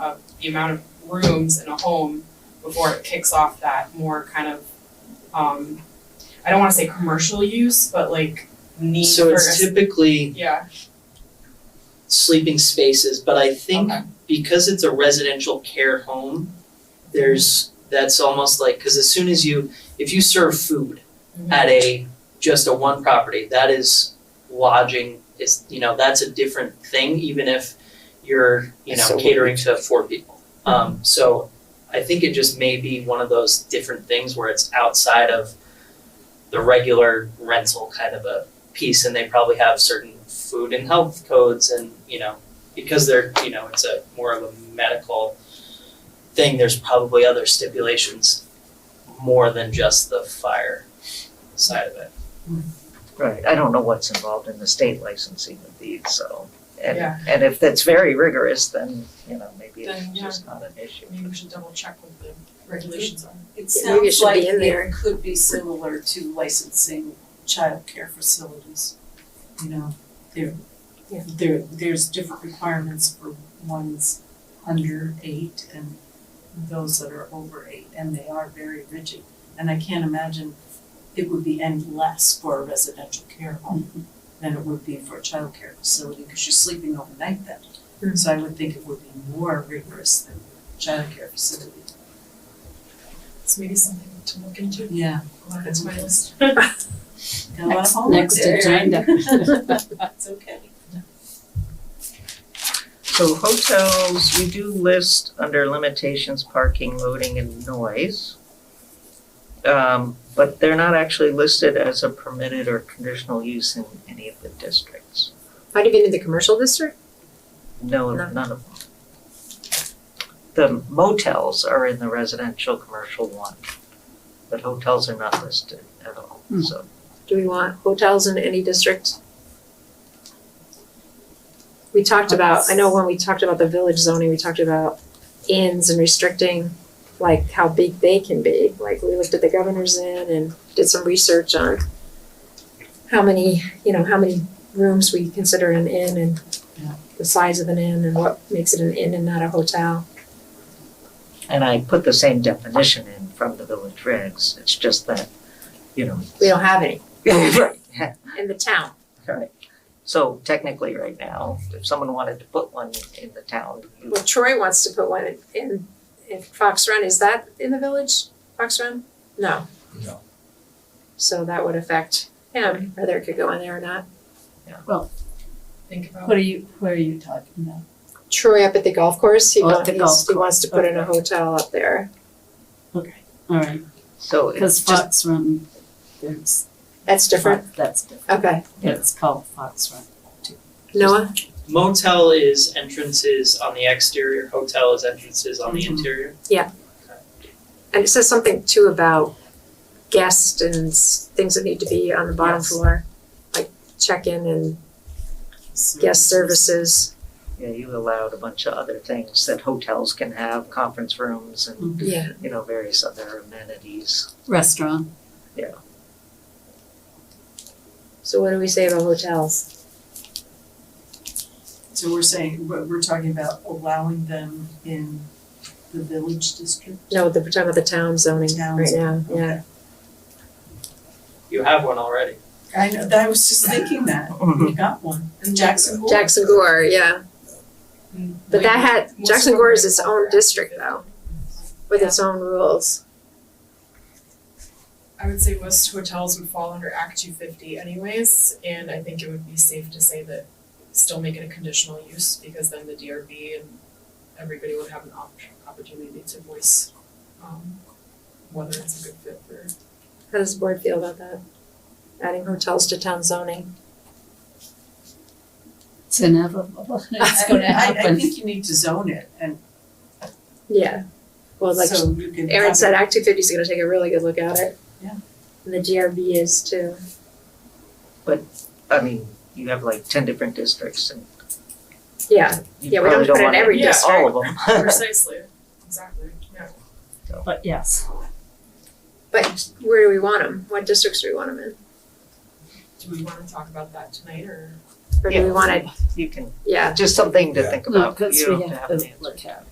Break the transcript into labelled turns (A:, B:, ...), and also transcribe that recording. A: of the amount of rooms in a home before it kicks off that more kind of, um, I don't wanna say commercial use, but like need for.
B: So it's
A: a-
B: typically
A: Yeah,
B: sleeping spaces, but I think
A: Okay.
B: because it's a residential care home, there's, that's almost like, cause as soon as you, if you serve food
A: Mhm.
B: at a, just a one property, that is lodging, is, you know, that's a different thing, even if you're, you
C: It's so
B: know, catering to four people. Um, so I think it just may be one of those different things where it's outside of the regular rental kind of a piece and they probably have certain food and health codes and you know because they're you know it's a more of a medical thing there's probably other stipulations more than just the fire side of it
C: Right, I don't know what's involved in the state licensing of these, so. And,
A: Yeah.
C: and if that's very rigorous, then, you know, maybe
A: Then,
C: it's
A: yeah.
C: just not an issue.
A: maybe we should double check what the regulations are.
D: It
E: Maybe it
D: sounds
E: should
D: like
E: be in there.
D: it could be similar to licensing childcare facilities. You know, there,
E: Yeah.
D: there, there's different requirements for ones under eight and those that are over eight, and they are very rigid. And I can't imagine it would be any less for a residential care
E: Mm-hmm.
D: home than it would be for a childcare facility, because you're sleeping overnight
E: Mm-hmm.
D: then. So I would think it would be more rigorous than childcare facility.
A: It's maybe something to look into.
D: Yeah.
A: Well, That's my list.
D: Next,
E: Next agenda.
D: That's okay.
C: So hotels, we do list under limitations, parking, loading and noise. Um, but they're not actually listed as a permitted or conditional use in any of the districts.
E: Not even in the commercial district?
C: No,
E: No.
C: none of them. The motels are in the residential commercial one, but hotels are not listed at all, so.
E: Do we want hotels in any district? We talked about, I know when we talked about the village zoning, we talked about inns and restricting like how big they can be. Like we looked at the governor's inn and did some research on how many, you know, how many rooms we consider an inn and
D: Yeah.
E: the size of an inn and what makes it an inn and not a hotel.
C: And I put the same definition in from the village regs, it's just that, you know.
E: We don't have any
C: Right.
E: in the town.
C: Right. So technically, right now, if someone wanted to put one in the town, you-
E: Well, Troy wants to put one in, in, in Fox Run, is that in the village, Fox Run? No.
F: No.
E: So that would affect him, whether it could go in there or not.
A: Think about.
D: What are you, what are you talking about?
E: Troy up at the golf course, he
D: Oh, at
E: wants,
D: the
E: he
D: golf
E: wants to put in a
D: course,
E: hotel up there.
D: Okay, all right,
C: so it's
D: because
C: just,
D: Fox Run, there's,
E: That's different,
D: that's different,
E: okay.
D: it's called Fox Run.
E: Noah,
B: motel is entrances on the exterior hotel is entrances on the
D: Mhm.
B: interior
E: and it says something too about guests and s- things that need to be on the bottom
D: Yes.
E: floor, like check-in and guest services.
C: yeah, you allowed a bunch of other things that hotels can have, conference rooms and,
E: Yeah.
C: you know, various other amenities.
D: Restaurant,
E: So what do we say about hotels?
D: So we're saying, we're, we're talking about allowing them in the village district?
E: No, the- we're talking about the town zoning
D: Town
E: right now, yeah.
B: you have one already
D: I know, that- I was just thinking that,
G: Mm-hmm.
E: Mm-hmm.
D: we got one, in Jackson Hole.
E: Jackson Gore, yeah, but
A: Mm.
E: that had, Jackson Gore is its own district though, with its own rules.
A: I would say most hotels would fall under Act two fifty anyways, and I think it would be safe to say that still make it a conditional use because then the DRB and everybody would have an op- opportunity to voice um whether it's a good fit for
E: How does the board feel about that? Adding hotels to town zoning?
G: It's inevitable. It's going to
D: I, I
G: happen.
D: think you need to zone it, and
E: Yeah. Well, like
D: so you can.
E: Aaron
D: have
E: said,
D: it-
E: Act two fifty is gonna take a really good look at it.
D: Yeah.
E: And the DRB is too.
C: I mean, you have like ten different districts and
E: Yeah,
C: you
E: Yeah, we don't
C: probably don't
E: put it in
C: wanna
E: every
C: do all of them.
A: precisely, exactly, yeah.
D: But yes,
E: but where do we want them? What districts do we want them in?
A: Do we wanna talk about that tonight or?
E: Or do we
C: Yeah.
E: want it,
C: You can,
E: yeah,
C: just something to
F: Yeah.
C: think think
G: No,
C: about,
G: 'cause
C: you
G: we
C: don't have to
G: have
C: have an
G: to
C: answer.
G: look at